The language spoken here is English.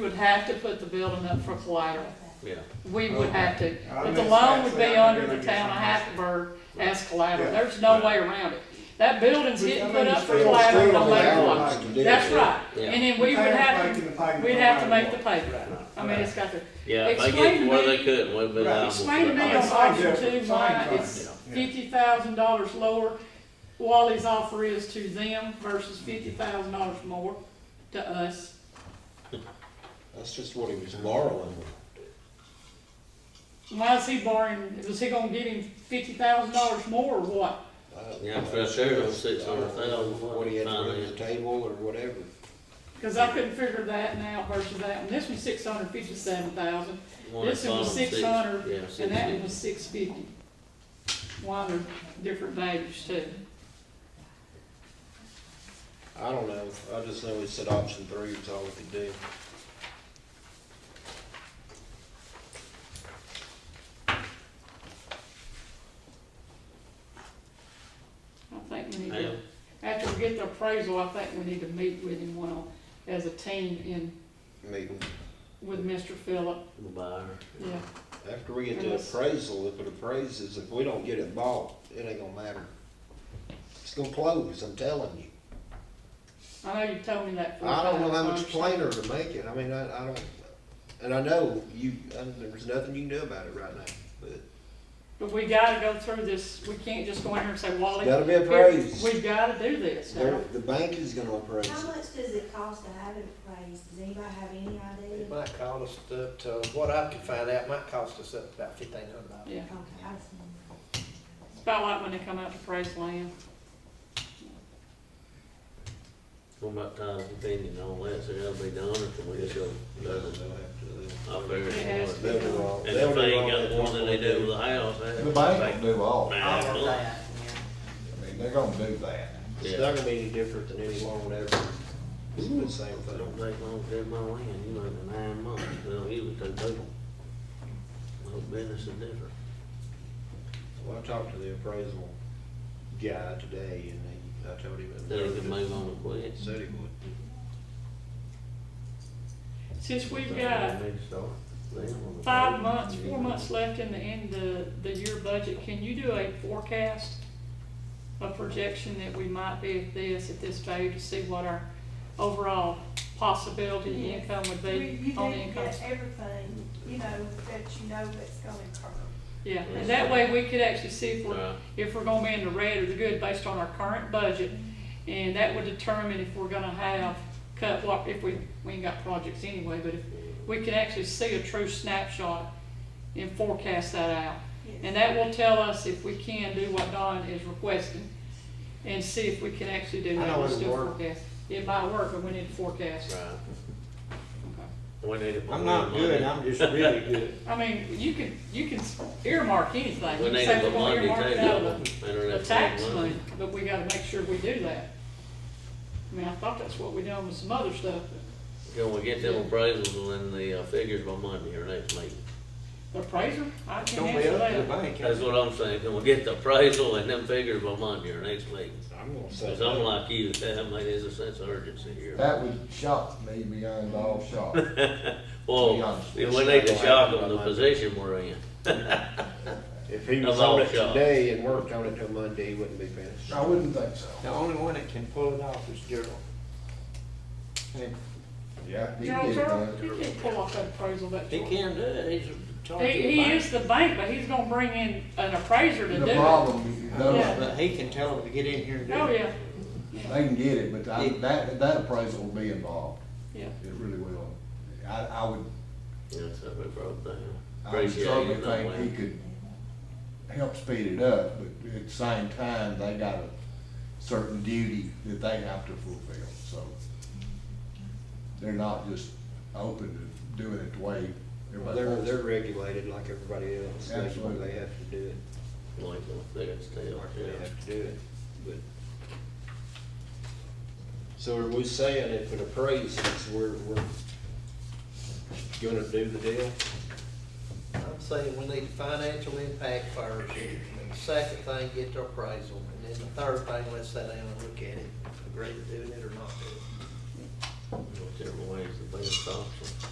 would have to put the building up for collateral. yeah. We would have to, I but the missed loan that, would so be I under really the town of missed Hackleburg as collateral, Yeah. there's no way around it. That building's Which, I getting mean, put up for still- collateral, still no matter allowed, what. like, That's right, Yeah. and then we would Parents have, making the payment we'd no have to matter make the what. paper up. I mean, Right. it's got to, Yeah, if they Explain get to to where me- they couldn't, we'd be Right, liable. explain to for me it. on Same option difference, two why same it's thing, yeah. fifty thousand dollars lower, Wally's offer is to them versus fifty thousand dollars more to us. That's just what he was borrowing. Why is he borrowing, was he gonna get him fifty thousand dollars more or what? Uh, Yeah, for sure, it was six hundred thousand, I don't know What he had to bring to finance. the table or whatever. Cause I couldn't figure that now versus that one, this one's six hundred fifty-seven thousand, One This one was column, six- 600, Yeah, six and that one fifty. was six fifty. Why they're different values too. I don't know, I just know he said option three was all we could do. I think we need Yeah. to, after we get the appraisal, I think we need to meet with him one, on- as a team in, Meeting, with Mr. Phillip, The buyer. yeah. after we get the Unless- appraisal, if it appraises, if we don't get it bought, it ain't gonna matter. It's gonna close, I'm telling you. I know you told me that. for a I don't know fact, I how much understand. plainer to make it, I mean, I, I don't, and I know you, I- there's nothing you can do about it right now, but But we gotta go through this, we can't just go in here and say, Wally. it's gotta be here, appraised. We gotta do this. They're- The bank is gonna appraise How it. much does it cost to have it appraised? Does anybody have any idea? It might cost up to, what I could find out, might cost us up about fifteen hundred dollars. Yeah, Okay, I see. it's about like when they come out to praise land. What about Tyler's opinion on that, so that'll be done, or can we just go? They'll have to- I figure It has it's to hard. They'll do all- And they'll if do they ain't all got that more than they do with the house, that. The bank will do all, I Man, All of look, that, yeah. mean, they're gonna do that. It's Yeah, not gonna be any different than any loan ever. It's the same If it don't thing. take long to get my land, you know, in nine months, they don't usually take people. Little business is different. Well, I talked to the appraisal guy today and he, I told him. it Then they was- can move on quick. Said he would. Since we've got five months, four months left in the end of the year budget, can you do a forecast? A projection that we might be at this, at this value, to see what our overall possibility Yes. income would You be you on the need to income. get everything, you know, that you know that's gonna occur. Yeah, and that way we could actually see if we're Right. if we're gonna be in the red or the good based on our current budget. And that would determine if we're gonna have cut what, if we, we ain't got projects anyway, but if we can actually see a true snapshot and forecast that out. And that will tell us if we can do what Don is requesting and see if we can actually do I that. know We'll it'll still work. forecast. It might work, but we need to forecast. Right. We need to put I'm not more money- good, I'm just really good. I mean, you can, you can earmark anything. You We can say need to we're put gonna money earmark it out of the- too. the Internet tax money. money, but we gotta make sure we do that. I mean, I thought that's what we done with some other stuff, but Can we get them appraisals and the uh, figures by Monday or next meeting? the appraiser, I can't Don't answer be up to the that. bank. That's what I'm saying, can we get the appraisal and them figures by Monday or next meeting? I'm gonna say. Cause I'm like you, that made is a sense of urgency here. That would shock me beyond all shock. be Well, honest, we it's not need to gonna shock happen them by the Monday. position we're in. If he I'm was on all it shocked. today and worked on it till Monday, he wouldn't be finished. I wouldn't think so. The only one that can pull it off is Gerald. Yeah. He General did Terrell, that. he can't pull off that appraisal that He short. can do it, he's a He, target he buyer. is the bank, but he's gonna bring in an appraiser to do The it. Oh, problem, Yeah. those, But he can tell them to get in here and do it. yeah, they can get it, but I- that, that appraisal will be involved. yeah. It really will. I, I would, Yeah, that's how we broke down. I would Appreciate certainly you think he knowing. could help speed it up, but at the same time, they got a certain duty that they have to fulfill, so. They're not just open to doing it the way everybody They're, wants it. they're regulated like everybody else. They- Absolutely. They have to do it. Like, they got stale, Mark, yeah. they have to do it, but. So are we saying if it appraises, we're, we're gonna do the deal? I'm saying we need the financial impact first, and the second thing, get the appraisal, and then the third thing, let's sit down and look at it, agree to doing it or not do it. Whichever way is the best option.